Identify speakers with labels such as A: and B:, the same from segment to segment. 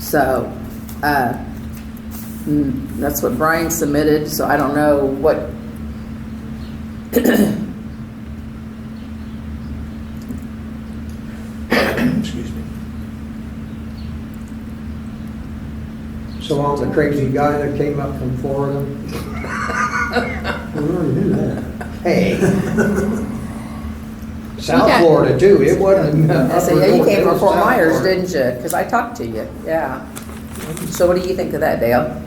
A: So, uh, mm, that's what Brian submitted, so I don't know what.
B: Excuse me.
C: So long the crazy guy that came up from Florida. We already knew that. Hey. South
A: Yeah.
C: Florida too, it wasn't. uh,
A: I said, yeah, you
C: upper north, it
A: came from
C: was
A: Fort
C: South
A: Myers,
C: Florida.
A: didn't you? Because I talked to you, yeah. So what do you think of that, Dale?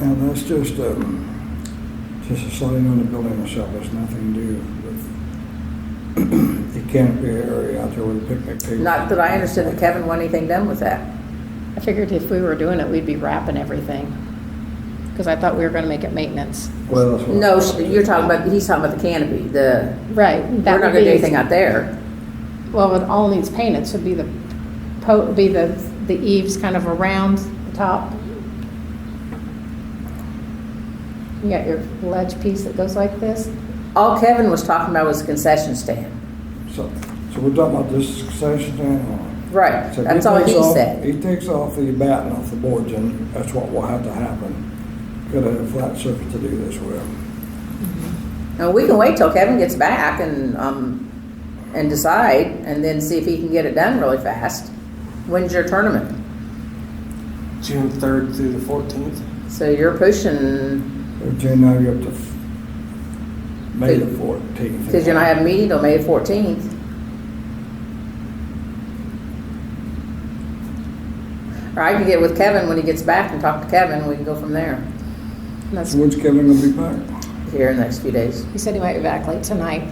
D: Now, that's just a, just a sliding on the building itself, it's nothing to do with the canopy area out there with the picnic table.
A: Not that I understood that Kevin wanted anything done with that.
E: I figured if we were doing it, we'd be wrapping everything, because I thought we were gonna make it maintenance.
D: Well, that's what.
A: No, sh- you're talking about, he's talking about the canopy, the,
E: Right.
A: we're not gonna do anything out there.
E: Well, it all needs painted, so be the, po- be the, the eaves kind of around the top. You got your ledge piece that goes like this,
A: All Kevin was talking about was the concession stand.
D: So, so we're talking about this succession stand.
A: Right,
D: So
A: that's all
D: takes
A: he
D: off-
A: said.
D: He takes off the batten off the boards, and that's what will have to happen. Got a flat surface to do this with.
A: And we can wait till Kevin gets back and, um, and decide, and then see if he can get it done really fast. When's your tournament?
B: June 3rd through the 14th.
A: So you're pushing,
D: Between now, you're up to f- May the fourteenth.
A: cause you're not having a meeting till May fourteenth. Or I can get with Kevin when he gets back and talk to Kevin, we can go from there,
E: and that's,
D: When's Kevin gonna be back?
A: here in the next few days.
E: he said he might be back late tonight.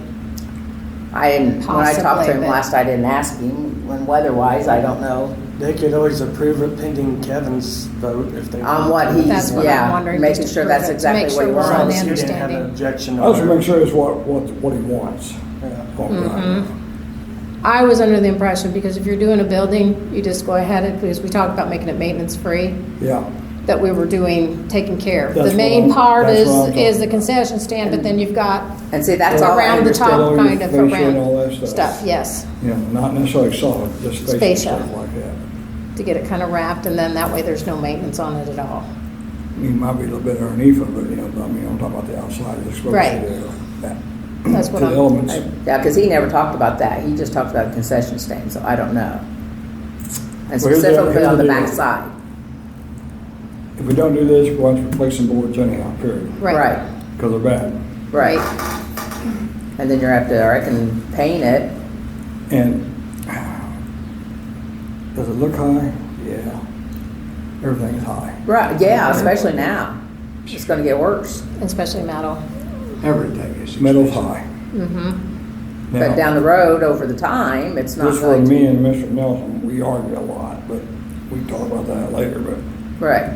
A: I didn't, when I talked to
E: Possibly,
A: him
E: but-
A: last, I didn't ask him, when weather-wise, I don't know,
B: They could always approve it pending Kevin's vote if they.
A: on
B: want.
A: what he's,
E: That's what I'm
A: yeah,
E: wondering,
A: making
E: just
A: sure that's
E: to
A: exactly
E: make
A: what he
E: sure we're
B: As
E: on
B: long
A: wants.
B: as he didn't have an
E: understanding.
B: objection.
D: I just
B: on it.
D: make sure it's what, what, what he wants.
B: Yeah.
D: Oh, God.
E: Mm-hmm. I was under the impression, because if you're doing a building, you just go ahead, and- because we talked about making it maintenance-free,
D: Yeah,
E: that we were doing, taking care of. The
D: That's what
E: main
D: I'm-
E: part
D: that's
E: is,
D: what I'm talking
E: is the
D: about.
E: concession stand, but then you've got
A: And see, that's all I
E: around the
A: understood.
D: understand all
E: top,
D: your
E: kind of
D: fascia and all that
E: around
D: stuff.
E: stuff, yes,
D: yeah, not necessarily solid, just spatial
E: Spatial.
D: stuff like that.
E: to get it kind of wrapped, and then that way there's no maintenance on it at all.
D: He might be a little bit underneath of it, you know, but I mean, I'm talking about the outside, the exposure
E: Right.
D: there. that-
E: That's what
D: to the
E: I'm-
D: elements.
A: Yeah, because he never talked about that. He just talked about concession stand, so I don't know. And
D: Well, here's the-
A: specifically on the
D: here's the
A: back
D: deal.
A: side.
D: If we don't do this, we're going to replace some boards anyhow, period,
E: Right,
D: because they're bad.
A: Right. And then you're up to, I can paint it.
D: And does it look high? Yeah. Everything's high,
A: Right, yeah, especially now. It's gonna get worse.
E: especially metal.
F: Everything is.
D: metal's high.
E: Mm-hmm.
A: But
D: Now,
A: down the road, over the time, it's not
D: This where
A: going to.
D: me and Mr. Nelson, we argue a lot, but we talk about that later, but
A: Right.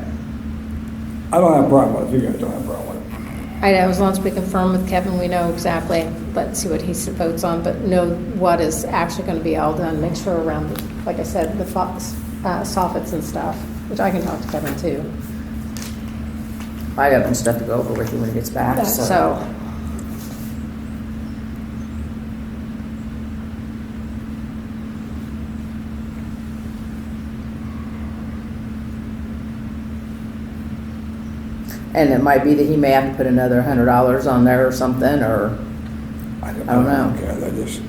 D: I don't have a problem with it, you guys don't have a problem with it.
E: I know, as long as we confirm with Kevin, we know exactly, let's see what he votes on, but know what is actually gonna be all done, make sure around, like I said, the fox, uh, soffits and stuff, which I can talk to Kevin too.
A: I got some stuff to go over with you when he gets back, so.
E: So,
A: And it might be that he may have to put another hundred dollars on there or something, or,
D: I don't,
A: I don't know.
D: care, I just.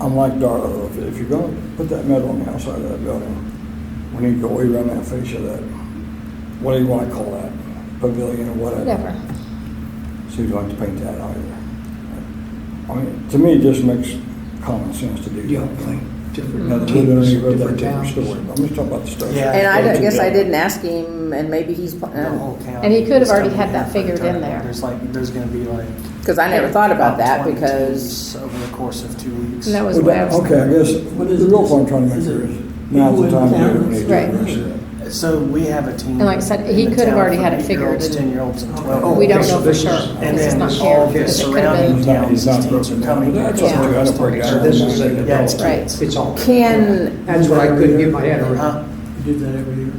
D: I'm like Darla, if- if you're gonna put that metal on the outside of that building, we need to go way around that face of that, what do you wanna call that? Pavilion or whatever.
E: whatever.
D: So you'd like to paint that either. I mean, to me, it just makes common sense to do that.
F: You don't think
C: Mm-hmm.
F: different
D: Now, the wood
F: teams,
D: underneath of that
F: different
D: different story,
F: towns.
D: but I'm just talking about the stuff.
B: Yeah.
A: and I
B: Yeah,
A: don't- guess I
B: yeah.
A: didn't ask him, and maybe he's, pl-
B: The
A: uh,
B: whole county.
E: And he could have already
B: Something
E: had that
B: for the
E: figured in
B: tournament.
E: there.
B: There's like, there's gonna be like.
A: Cause I never thought about that
B: Twenty
A: because,
B: teams Over the course of two weeks.
E: And that was
D: Well,
E: the way I
D: that-
E: was.
D: Okay, I guess,
F: What is
D: the real
F: this?
D: point I'm trying to make
F: Is
D: here
F: it
D: is, now's the
F: people
D: time
F: in
D: to do it.
F: town?
D: when you do
E: Right.
D: the rest of it.
B: So we have a team.
E: And like I said, he
B: in the
E: could have
B: town
E: already
B: for
E: had it
B: eight-year-olds,
E: figured and-
B: Ten-year-olds and
F: Oh,
B: twelve.
E: We don't
F: okay,
E: know
F: so
E: for
F: this
E: sure.
F: is-
B: And
E: This is
B: then
E: not
B: all
E: shared,
B: the
E: because it could have
B: surrounding
E: been.
D: It's not-
B: counties
D: it's not
B: teams are
D: broken
B: coming.
D: down. That's
E: what
B: here
E: we
D: gotta
B: to make
D: break
B: sure
D: down.
B: this
D: is-
B: Yeah, it's
E: Right.
F: It's all.
A: can,
F: That's what I couldn't get my head around.
B: Huh?
F: You did that every year.